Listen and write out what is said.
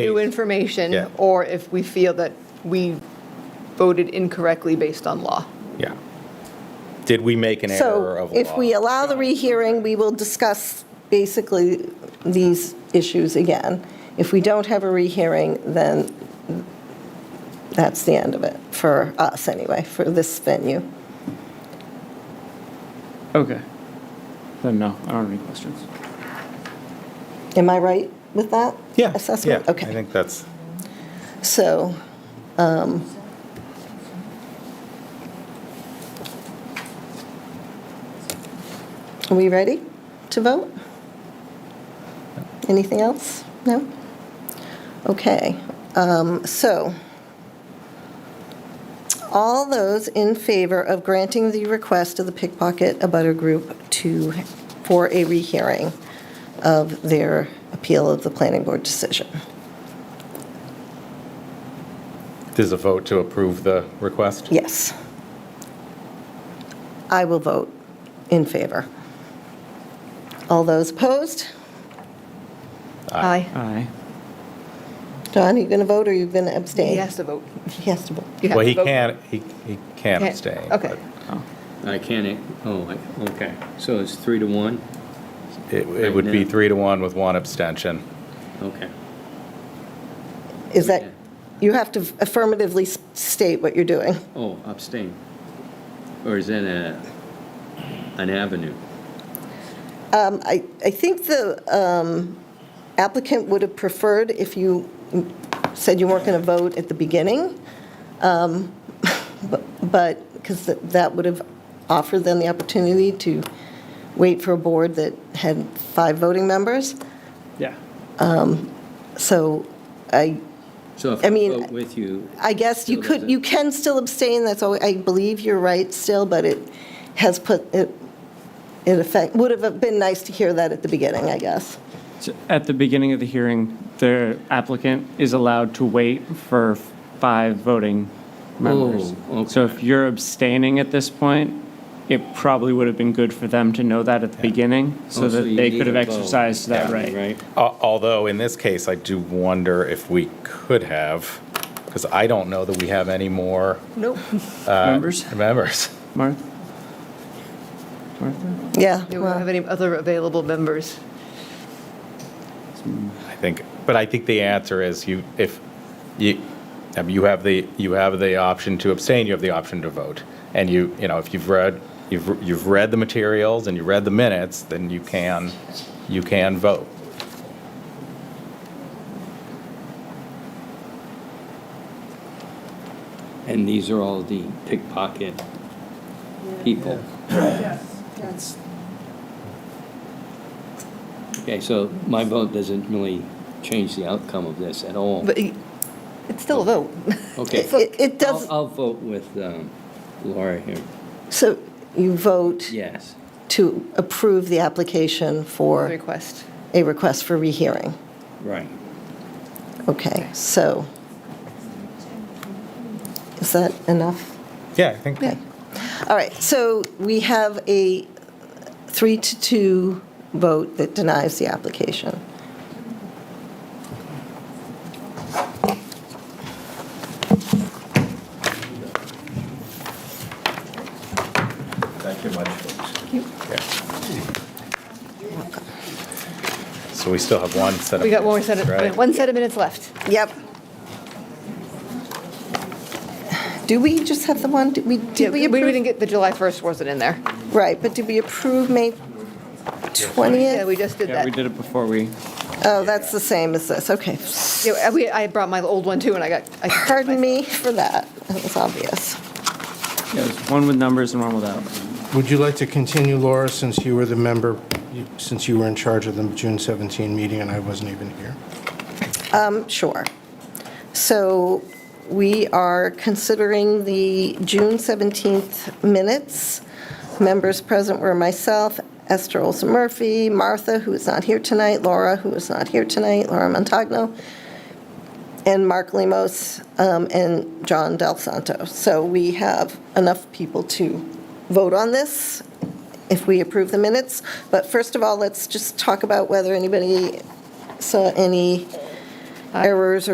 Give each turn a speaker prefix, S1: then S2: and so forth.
S1: new
S2: Eight.
S1: information,
S2: Yeah.
S1: or if we feel that we voted incorrectly based on law.
S2: Yeah. Did we make an error
S3: So
S2: of law?
S3: if we allow the rehearing, we will discuss basically these issues again. If we don't have a rehearing, then that's the end of it, for us anyway, for this venue.
S4: Okay. Then no, I don't have any questions.
S3: Am I right with that?
S2: Yeah,
S3: Assessment?
S2: yeah, I
S3: Okay.
S2: think that's,
S3: So, um, are we ready to vote? Anything else? No? Okay. Um, So, all those in favor of granting the request of the Pickpocket Abutter Group to, for a rehearing of their appeal of the planning board decision?
S2: there's a vote to approve the request?
S3: Yes. I will vote in favor. All those opposed?
S1: Aye.
S4: Aye.
S3: Don, are you going to vote or are you going to abstain?
S1: He has to vote.
S3: He has to vote.
S1: You have
S2: Well,
S1: to
S2: he
S1: vote.
S2: can't, he he can't
S1: Can't-
S2: abstain.
S1: okay.
S2: but
S5: I can't, oh, I- okay, so it's three to one?
S2: It it would be three to one with one abstention.
S5: Okay.
S3: Is that, you have to affirmatively s- state what you're doing.
S5: Oh, abstain. Or is that a, an avenue?
S3: Um, I, I think the um, applicant would have preferred if you said you weren't going to vote at the beginning, um, bu- but, because that would have offered them the opportunity to wait for a board that had five voting members.
S4: Yeah.
S3: So I,
S5: So if
S3: I
S5: I
S3: mean-
S5: vote with you,
S3: I guess you could, you can still abstain, that's all, I believe you're right still, but it has put, it, it affect, would have been nice to hear that at the beginning, I guess.
S4: So At the beginning of the hearing, the applicant is allowed to wait for five voting members.
S5: Oh,
S4: So
S5: okay.
S4: if you're abstaining at this point, it probably would have been good for them to know that at the beginning,
S5: Oh,
S4: so
S5: so
S4: that
S5: you
S4: they
S5: need
S4: could have
S5: a vote.
S4: exercised that right.
S5: right?
S2: Al- Although, in this case, I do wonder if we could have, because I don't know that we have any more uh,
S1: Nope.
S4: Members,
S2: members.
S4: Martha? Martha?
S3: Yeah.
S1: We don't
S3: well-
S1: have any other available members.
S2: I think, but I think the answer is you, if, you, I mean, you have the, you have the option to abstain, you have the option to vote. And you, you know, if you've read, you've, you've read the materials and you read the minutes, then you can, you can vote.
S5: And these are all the pickpocket people.
S6: That's,
S5: Okay, so my vote doesn't really change the outcome of this at all.
S1: But he- it's still a vote.
S5: Okay,
S3: It- It it
S5: I'll,
S3: does,
S5: I'll vote with um, Laura here,
S3: so you vote
S5: yes.
S3: to approve the application for
S1: Request.
S3: a request for rehearing.
S5: Right.
S3: Okay, so is that enough?
S2: Yeah, I think.
S3: Okay. All right, so we have a three to two vote that denies the application.
S2: Thank you much, folks. Yeah. So we still have one set of.
S1: We got one more set
S2: right?
S1: of, one set of minutes left.
S3: Yep. Do we just have the one, did we,
S1: Yeah,
S3: did
S1: We
S3: we
S1: we didn't
S3: approve?
S1: get, the July 1st wasn't in there.
S3: Right, but did we approve May 20th?
S1: Yeah, we just did
S4: Yeah,
S1: that.
S4: we did it before we,
S3: Oh, that's the same as this, okay.
S1: Yeah, we- I brought my old one too, and I got. I-
S3: Pardon me for that, that was obvious.
S4: yeah, there's one with numbers and one without.
S6: would you like to continue, Laura, since you were the member, you- since you were in charge of the June 17 meeting and I wasn't even here?
S3: Um, Sure. So we are considering the June 17th minutes. Members present were myself, Esther Olson Murphy, Martha, who is not here tonight, Laura, who is not here tonight, Laura Montagno, and Mark Lemos, um, and John Del Santo. So we have enough people to vote on this if we approve the minutes. But first of all, let's just talk about whether anybody saw any errors